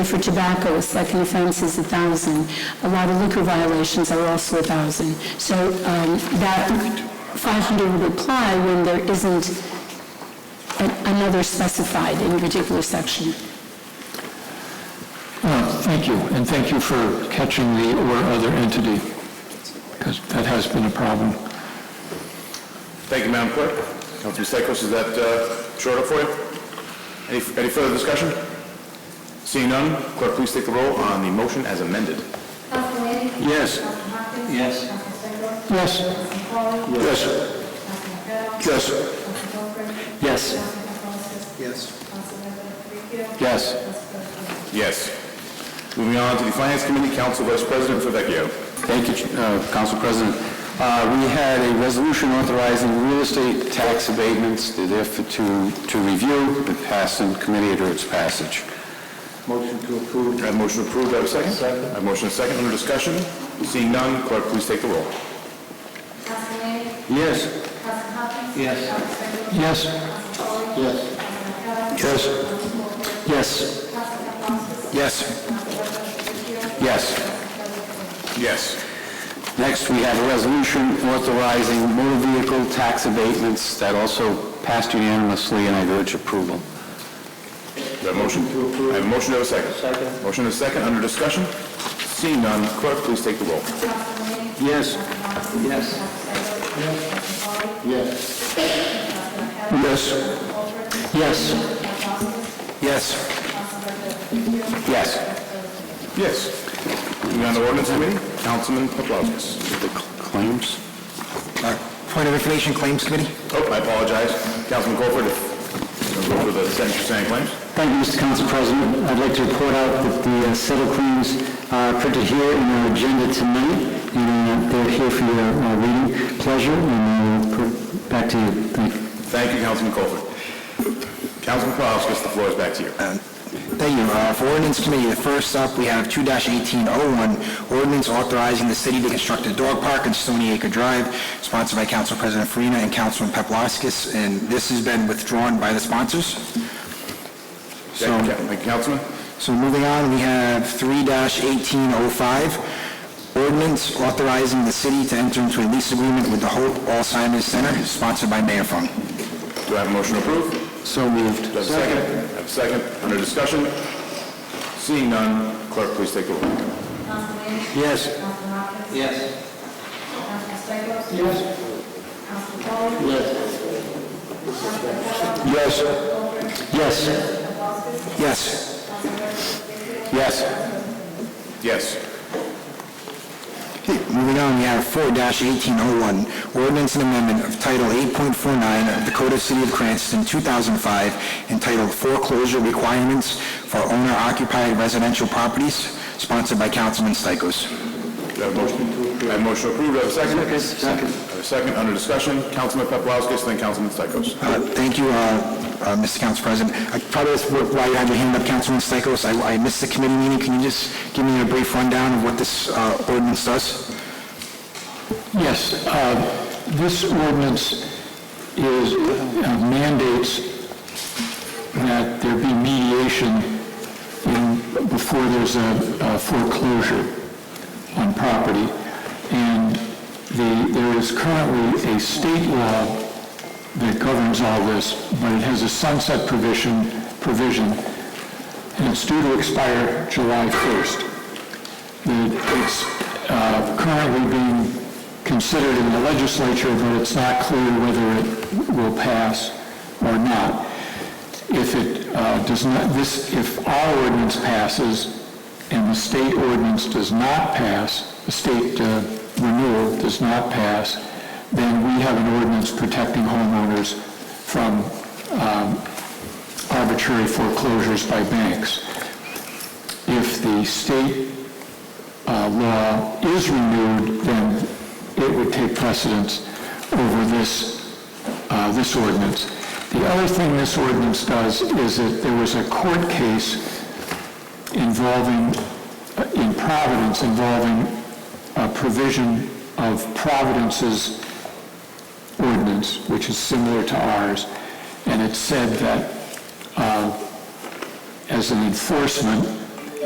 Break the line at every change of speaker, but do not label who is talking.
For tobacco, a second offense is 1,000. A lot of liquor violations are also 1,000. So um, that 500 would apply when there isn't a- another specified in a particular section.
Uh, Thank you, and thank you for catching the "or other entity," because that has been a problem.
Thank you, Madam Clerk. Councilman Stichels, is that uh, short up for you? Any any further discussion? Seeing none, clerk, please take the roll on the motion as amended.
Councilman Lanning?
Yes.
Councilman Hopkins?
Yes.
Councilman Stengel?
Yes.
Councilman Paul?
Yes.
Councilman Fennel?
Yes.
Councilman Goldberg?
Yes.
Councilman Colston?
Yes.
Councilman Ricchio?
Yes.
Yes. Moving on to the Finance Committee, Council Vice President Favecchio.
Thank you, uh, Council President. Uh, We had a resolution authorizing real estate tax abatements, they're there for- to to review, but passed in committee under its passage.
Motion to approve.
I have motion approved, do I have a second? Second. I have motion and second, under discussion. Seeing none, clerk, please take the roll.
Councilman Lanning?
Yes.
Councilman Hopkins?
Yes.
Councilman Stengel?
Yes.
Councilman Paul?
Yes.
Councilman Fennel?
Yes.
Councilman Goldberg?
Yes.
Councilman Colston?
Yes.
Councilman Ricchio?
Yes.
Yes.
Next, we have a resolution authorizing motor vehicle tax abatements that also passed unanimously, and I urge approval.
Do I have a motion? I have a motion, do I have a second? Second. Motion and second, under discussion. Seeing none, clerk, please take the roll.
Councilman Lanning?
Yes.
Yes. Yes.
Yes. Yes. Yes. Yes.
Yes. Moving on to ordinance committee, Councilman Paplaskas.
The claims?
Point of information, Claims Committee.
Oh, I apologize. Councilman Colford, if you want to go for the sentence you're saying claims.
Thank you, Mr. Council President. I'd like to report out that the uh, settled claims are printed here in our agenda tonight, and uh, they're here for your uh, reading pleasure, and uh, pr- back to you. Thank you.
Thank you, Councilman Colford. Councilman Paplaskas, the floor is back to you.
Thank you. Uh, For ordinance committee, the first up, we have 2-1801, ordinance authorizing the city to construct a dog park on Stony Acre Drive, sponsored by Council President Farina and Councilman Paplaskas, and this has been withdrawn by the sponsors. So-
Thank you, Ca- Councilman.
So moving on, we have 3-1805, ordinance authorizing the city to enter into a lease agreement with the Hope Alzheimer's Center, sponsored by Mayor Fung.
Do I have a motion to approve?
So moved.
Do I have a second? I have a second. Under discussion. Seeing none, clerk, please take the roll.
Councilman Lanning?
Yes.
Councilman Hopkins?
Yes.
Councilman Stengel?
Yes.
Councilman Paul?
Yes.
Yes. Yes.
Yes.
Yes.
Yes.
Moving on, we have four eighteen oh one, ordinance and amendment of Title eight point four nine of the Code of City of Cranston, two thousand five, entitled Foreclosure Requirements for Owner Occupied Residential Properties, sponsored by Councilman Stichels.
Do I have a motion? I have a motion to approve. Do I have a second? Second. I have a second. Under discussion. Councilman Paplaskas, then Councilman Stichels.
Uh, Thank you, uh, uh, Mr. Council President. I Probably that's wh- why you had your hand up, Councilman Stichels. I I missed the committee meeting. Can you just give me a brief rundown of what this uh, ordinance does?
Yes, uh, this ordinance is, uh, mandates that there be mediation in- before there's a a foreclosure on property. And the, there is currently a state law that governs all this, but it has a sunset provision, provision, and it's due to expire July 1st that it's uh, currently being considered in the legislature, but it's not clear whether it will pass or not. If it uh, does not, this, if our ordinance passes and the state ordinance does not pass, the state uh, renewal does not pass, then we have an ordinance protecting homeowners from um, arbitrary foreclosures by banks. If the state uh, law is renewed, then it would take precedence over this, uh, this ordinance. The other thing this ordinance does is that there was a court case involving, uh, in Providence, involving a provision of Providence's ordinance, which is similar to ours, and it said that uh, as an enforcement